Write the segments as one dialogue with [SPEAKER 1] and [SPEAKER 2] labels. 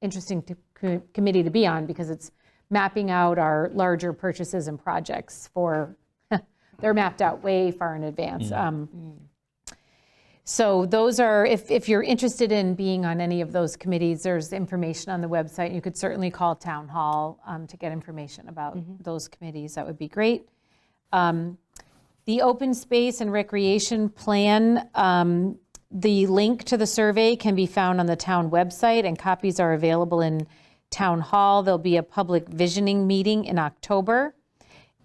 [SPEAKER 1] interesting to- co- committee to be on because it's mapping out our larger purchases and projects for, they're mapped out way far in advance. Um, So those are, if, if you're interested in being on any of those committees, there's information on the website. You could certainly call Town Hall um, to get information about those committees. That would be great. The open space and recreation plan, um, the link to the survey can be found on the town website, and copies are available in town hall. There'll be a public visioning meeting in October.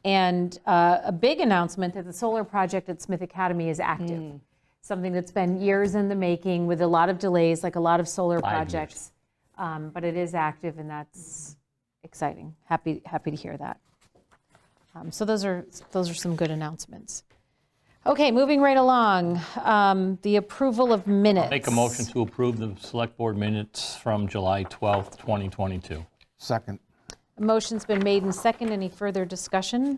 [SPEAKER 1] And uh, a big announcement that the solar project at Smith Academy is
[SPEAKER 2] Hmm.
[SPEAKER 1] active. Something that's been years in the making with a lot of delays, like a lot of solar
[SPEAKER 2] Five years.
[SPEAKER 1] projects. Um, But it is active, and that's exciting. Happy, happy to hear that. Um, So those are, those are some good announcements. Okay, moving right along, um, the approval of minutes.
[SPEAKER 2] Make a motion to approve the select board minutes from July 12th, 2022.
[SPEAKER 3] Second.
[SPEAKER 1] A Motion's been made and second. Any further discussion?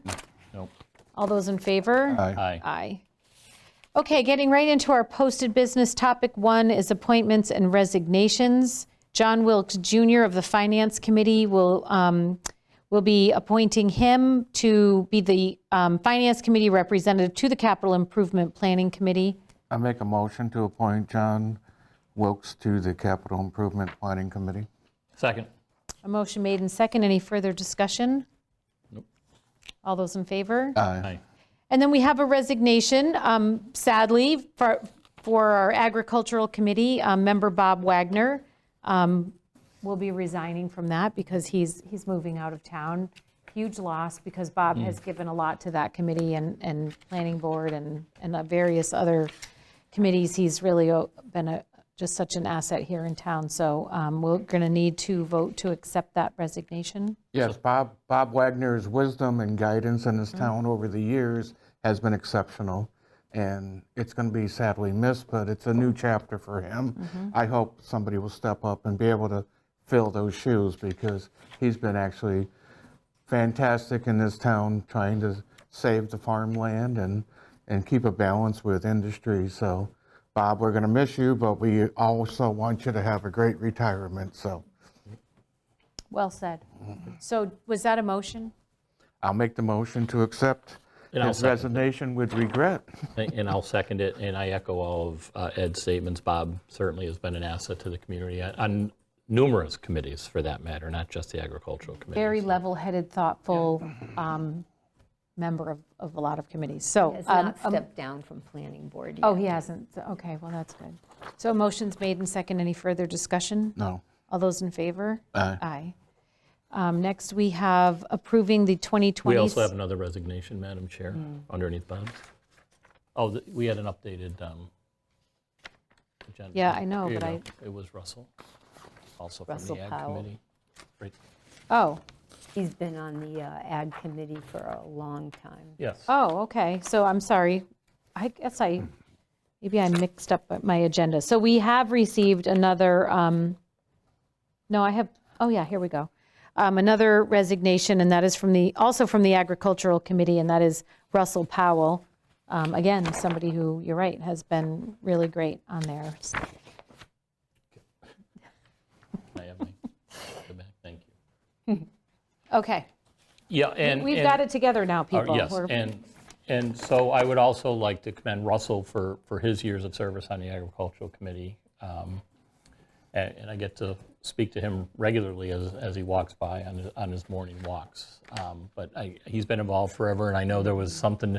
[SPEAKER 2] Nope.
[SPEAKER 1] All those in favor?
[SPEAKER 2] Aye.
[SPEAKER 1] Aye. Okay, getting right into our posted business, topic one is appointments and resignations. John Wilkes Jr. of the Finance Committee will, um, will be appointing him to be the um, Finance Committee representative to the Capital Improvement Planning Committee.
[SPEAKER 3] I make a motion to appoint John Wilkes to the Capital Improvement Planning Committee.
[SPEAKER 2] Second.
[SPEAKER 1] A motion made and second. Any further discussion? All those in favor?
[SPEAKER 3] Aye.
[SPEAKER 2] Aye.
[SPEAKER 1] And then we have a resignation, um, sadly, for, for our agricultural committee, um, member Bob Wagner um, will be resigning from that because he's, he's moving out of town. Huge loss because Bob has given a lot to that committee and, and planning board and, and uh, various other committees. He's really uh, been a, just such an asset here in town. So um, we're going to need to vote to accept that resignation.
[SPEAKER 3] Yes, Bob, Bob Wagner's wisdom and guidance in this town over the years has been exceptional. And it's going to be sadly missed, but it's a new chapter for him. I hope somebody will step up and be able to fill those shoes because he's been actually fantastic in this town trying to save the farmland and, and keep a balance with industry. So Bob, we're going to miss you, but we also want you to have a great retirement. So
[SPEAKER 1] Well said. So was that a motion?
[SPEAKER 3] I'll make the motion to accept
[SPEAKER 2] And I'll
[SPEAKER 3] his
[SPEAKER 2] second it.
[SPEAKER 3] resignation with regret.
[SPEAKER 2] And I'll second it, and I echo all of uh, Ed's statements. Bob certainly has been an asset to the community on- on numerous committees, for that matter, not just the agricultural committee.
[SPEAKER 1] very level-headed, thoughtful um, member of, of a lot of committees. So,
[SPEAKER 4] Has
[SPEAKER 1] um,
[SPEAKER 4] not
[SPEAKER 1] um,
[SPEAKER 4] stepped down from planning board
[SPEAKER 1] oh,
[SPEAKER 4] yet.
[SPEAKER 1] he hasn't. So- Okay, well, that's good. So a motion's made and second. Any further discussion?
[SPEAKER 3] No.
[SPEAKER 1] All those in favor?
[SPEAKER 3] Aye.
[SPEAKER 1] Aye. Um, Next, we have approving the 2020.
[SPEAKER 2] We also have another resignation, Madam Chair,
[SPEAKER 1] Hmm.
[SPEAKER 2] underneath Bob's. Oh, th- we had an updated um, agenda.
[SPEAKER 1] Yeah, I know,
[SPEAKER 2] Here you
[SPEAKER 1] but
[SPEAKER 2] go. It was Russell, also from
[SPEAKER 4] Russell
[SPEAKER 2] the ag
[SPEAKER 4] Powell.
[SPEAKER 2] committee. Right.
[SPEAKER 1] Oh,
[SPEAKER 4] He's been on the uh, ag committee for a long time.
[SPEAKER 2] Yes.
[SPEAKER 1] oh, okay. So I'm sorry. I guess I, maybe I mixed up my agenda. So we have received another, um, No, I have, oh yeah, here we go. Um, Another resignation, and that is from the, also from the Agricultural Committee, and that is Russell Powell. Um, Again, somebody who, you're right, has been really great on there.
[SPEAKER 2] I have my- go back. Thank you.
[SPEAKER 1] Okay,
[SPEAKER 2] Yeah, and.
[SPEAKER 1] we've
[SPEAKER 2] and-
[SPEAKER 1] got it together now,
[SPEAKER 2] Uh,
[SPEAKER 1] people.
[SPEAKER 2] Yes,
[SPEAKER 1] We're-
[SPEAKER 2] and, and so I would also like to commend Russell for, for his years of service on the Agricultural Committee. Um, And and I get to speak to him regularly as, as he walks by on, his- on his morning walks. Um, But I, he's been involved forever, and I know there was something,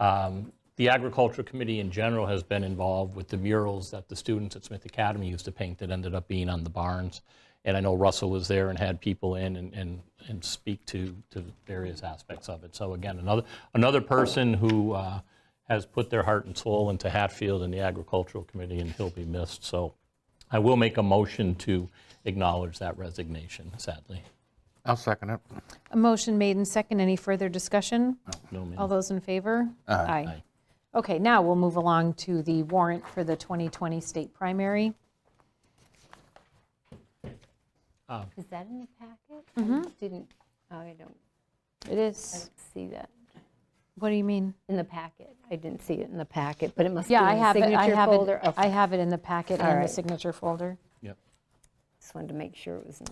[SPEAKER 2] um, the Agricultural Committee in general has been involved with the murals that the students at Smith Academy used to paint that ended up being on the barns. And I know Russell was there and had people in and, and, and speak to, to various aspects of it. So again, another, another person who uh, has put their heart and soul into Hatfield and the Agricultural Committee, and he'll be missed. So I will make a motion to acknowledge that resignation, sadly.
[SPEAKER 3] I'll second it.
[SPEAKER 1] A motion made and second. Any further discussion?
[SPEAKER 2] No, ma'am.
[SPEAKER 1] All those in favor? Aye. Okay, now we'll move along to the warrant for the 2020 state primary.
[SPEAKER 4] Is that in the packet?
[SPEAKER 1] Mm-hmm.
[SPEAKER 4] I didn't, oh, I don't
[SPEAKER 1] It is,
[SPEAKER 4] see that
[SPEAKER 1] what do you mean?
[SPEAKER 4] in the packet. I didn't see it in the packet, but it must be in
[SPEAKER 1] Yeah, I
[SPEAKER 4] the
[SPEAKER 1] have it, I
[SPEAKER 4] signature
[SPEAKER 1] have
[SPEAKER 4] folder.
[SPEAKER 1] it,
[SPEAKER 4] Okay.
[SPEAKER 1] I have it in the packet
[SPEAKER 4] All
[SPEAKER 1] and the
[SPEAKER 4] right.
[SPEAKER 1] signature folder.
[SPEAKER 2] Yep.
[SPEAKER 4] just wanted to make sure it was in